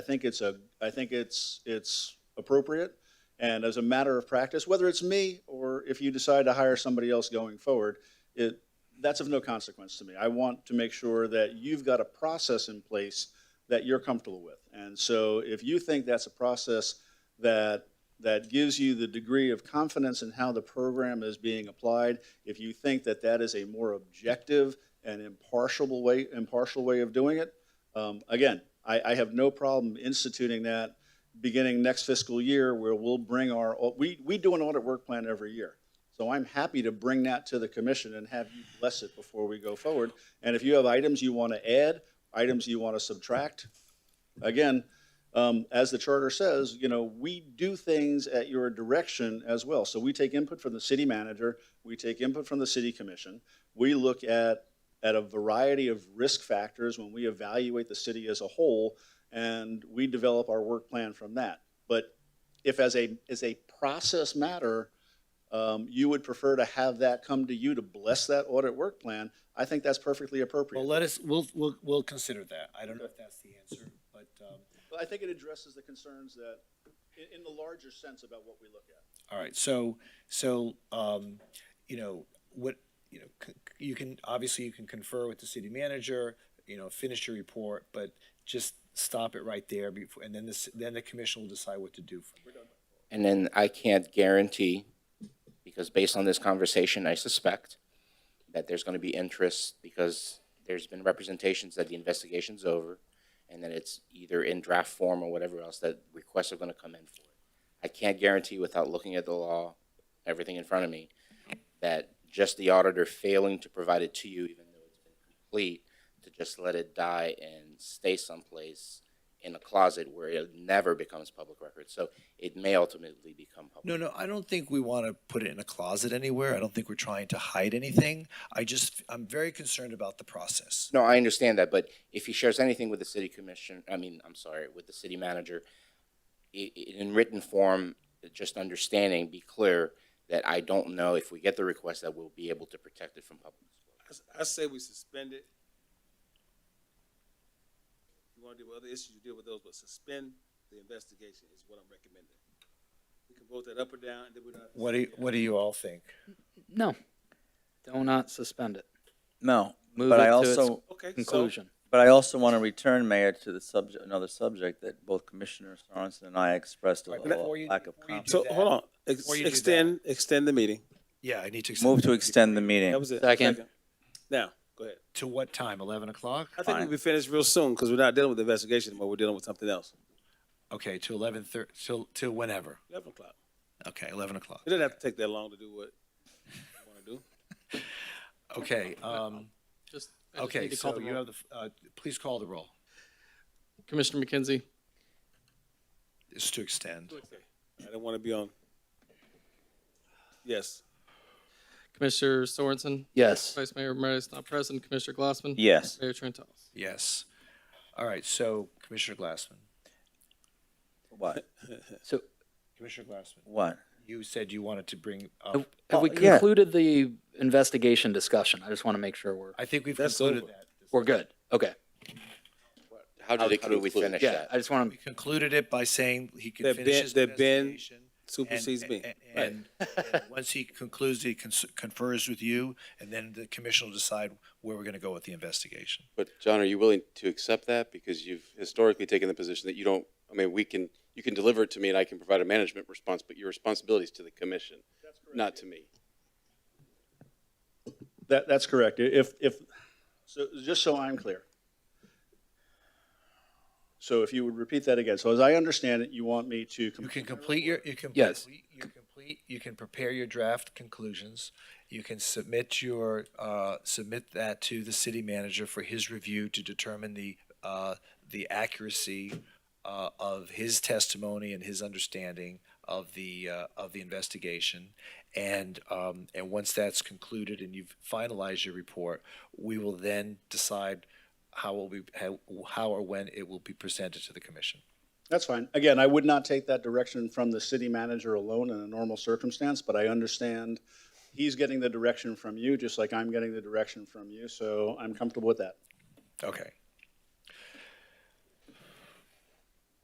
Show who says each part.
Speaker 1: I think it's a, I think it's, it's appropriate. And as a matter of practice, whether it's me or if you decide to hire somebody else going forward, it, that's of no consequence to me. I want to make sure that you've got a process in place that you're comfortable with. And so if you think that's a process that, that gives you the degree of confidence in how the program is being applied, if you think that that is a more objective and impartial way, impartial way of doing it, um, Again, I, I have no problem instituting that beginning next fiscal year where we'll bring our, we, we do an audit work plan every year. So I'm happy to bring that to the commission and have you bless it before we go forward. And if you have items you want to add, items you want to subtract, again, um, as the charter says, you know, we do things at your direction as well. So we take input from the city manager, we take input from the city commission. We look at at a variety of risk factors when we evaluate the city as a whole, and we develop our work plan from that. But if as a, as a process matter, um, you would prefer to have that come to you to bless that audit work plan, I think that's perfectly
Speaker 2: Well,
Speaker 1: appropriate.
Speaker 2: let us, we'll, we'll, we'll consider that. I don't know if that's the answer, but, um,
Speaker 1: But I think it addresses the concerns that, in, in the larger sense about what we look at.
Speaker 2: all right. So, so, um, you know, what, you know, c- c- you can, obviously you can confer with the city manager, you know, finish your report, but just stop it right there before, and then this, then the commission will decide what to do. from there.
Speaker 3: And then I can't guarantee, because based on this conversation, I suspect that there's going to be interest because there's been representations that the investigation's over and that it's either in draft form or whatever else that requests are going to come in for it. I can't guarantee without looking at the law, everything in front of me, that just the auditor failing to provide it to you, even though it's been complete, to just let it die and stay someplace in a closet where it never becomes public record. So it may ultimately become public.
Speaker 2: No, no, I don't think we want to put it in a closet anywhere. I don't think we're trying to hide anything. I just, I'm very concerned about the process.
Speaker 3: No, I understand that, but if he shares anything with the city commission, I mean, I'm sorry, with the city manager, i- i- in written form, just understanding, be clear that I don't know if we get the request that we'll be able to protect it from public. disclosure.
Speaker 4: I s- I say we suspend it. If you want to deal with other issues, you deal with those, but suspend the investigation is what I'm recommending. We can vote that up or down, and then we're not.
Speaker 2: What do, you- what do you all think?
Speaker 5: No. Do not suspend it.
Speaker 6: No,
Speaker 5: Move
Speaker 6: but
Speaker 5: it
Speaker 6: I
Speaker 5: to its
Speaker 6: also,
Speaker 4: Okay, so,
Speaker 5: conclusion.
Speaker 6: but I also want to return, Mayor, to the subject, another subject that both Commissioner Sorensen and I expressed a
Speaker 2: Right,
Speaker 6: little
Speaker 2: before you-
Speaker 6: lack of
Speaker 2: before you
Speaker 6: confidence.
Speaker 4: so, hold on, Ex-
Speaker 2: Before you do that-
Speaker 4: extend, extend the meeting.
Speaker 2: Yeah, I need to.
Speaker 6: Move to extend the
Speaker 4: That
Speaker 6: meeting.
Speaker 4: was it.
Speaker 5: Second.
Speaker 4: Now, go ahead.
Speaker 2: To what time? Eleven o'clock?
Speaker 4: I think we'll
Speaker 6: Fine.
Speaker 4: be finished real soon, because we're not dealing with the investigation anymore, we're dealing with something else.
Speaker 2: Okay, to eleven thirty, till, till whenever.
Speaker 4: Eleven o'clock.
Speaker 2: Okay, eleven o'clock.
Speaker 4: It doesn't have to take that long to do what you want to do.
Speaker 2: Okay, um,
Speaker 7: Just, I just
Speaker 2: okay,
Speaker 7: need to call
Speaker 2: so
Speaker 7: the
Speaker 2: you have
Speaker 7: roll.
Speaker 2: the, f- uh, please call the roll.
Speaker 7: Commissioner McKenzie,
Speaker 2: It's to extend.
Speaker 4: I don't want to be on. Yes,
Speaker 7: Commissioner Sorensen,
Speaker 5: Yes.
Speaker 7: Vice Mayor Murray's not present, Commissioner Glassman.
Speaker 6: Yes.
Speaker 7: Mayor Trentalles.
Speaker 2: Yes. All right, so Commissioner Glassman,
Speaker 6: What?
Speaker 5: So
Speaker 2: Commissioner Glassman,
Speaker 6: What?
Speaker 2: you said you wanted to bring up,
Speaker 5: have we
Speaker 6: Well, yeah.
Speaker 5: concluded the investigation discussion? I just want to make sure we're,
Speaker 2: I think we've
Speaker 4: That's
Speaker 2: concluded
Speaker 4: over.
Speaker 2: that.
Speaker 5: we're good. Okay.
Speaker 3: How do they, how do we finish
Speaker 5: Yeah,
Speaker 3: that?
Speaker 5: I just want
Speaker 2: We concluded it by saying he could
Speaker 4: That
Speaker 2: finish
Speaker 4: Ben-
Speaker 2: his
Speaker 4: that Ben
Speaker 2: investigation.
Speaker 4: supersedes me.
Speaker 2: And,
Speaker 4: Right.
Speaker 2: and, and once he concludes, he cons- confers with you, and then the commission will decide where we're gonna go with the investigation.
Speaker 8: But John, are you willing to accept that? Because you've historically taken the position that you don't, I mean, we can, you can deliver it to me and I can provide a management response, but your responsibility is to the commission, not to me.
Speaker 1: That, that's correct. If, if, so, just so I'm clear. So if you would repeat that again. So as I understand it, you want me to.
Speaker 2: You can complete your, you can.
Speaker 5: Yes.
Speaker 2: complete- You complete, you can prepare your draft conclusions. You can submit your, uh, submit that to the city manager for his review to determine the, uh, the accuracy, uh, of his testimony and his understanding of the, uh, of the investigation. And, um, and once that's concluded and you've finalized your report, we will then decide how will we, how, how or when it will be presented to the commission.
Speaker 1: That's fine. Again, I would not take that direction from the city manager alone in a normal circumstance, but I understand he's getting the direction from you, just like I'm getting the direction from you, so I'm comfortable with that.
Speaker 2: Okay.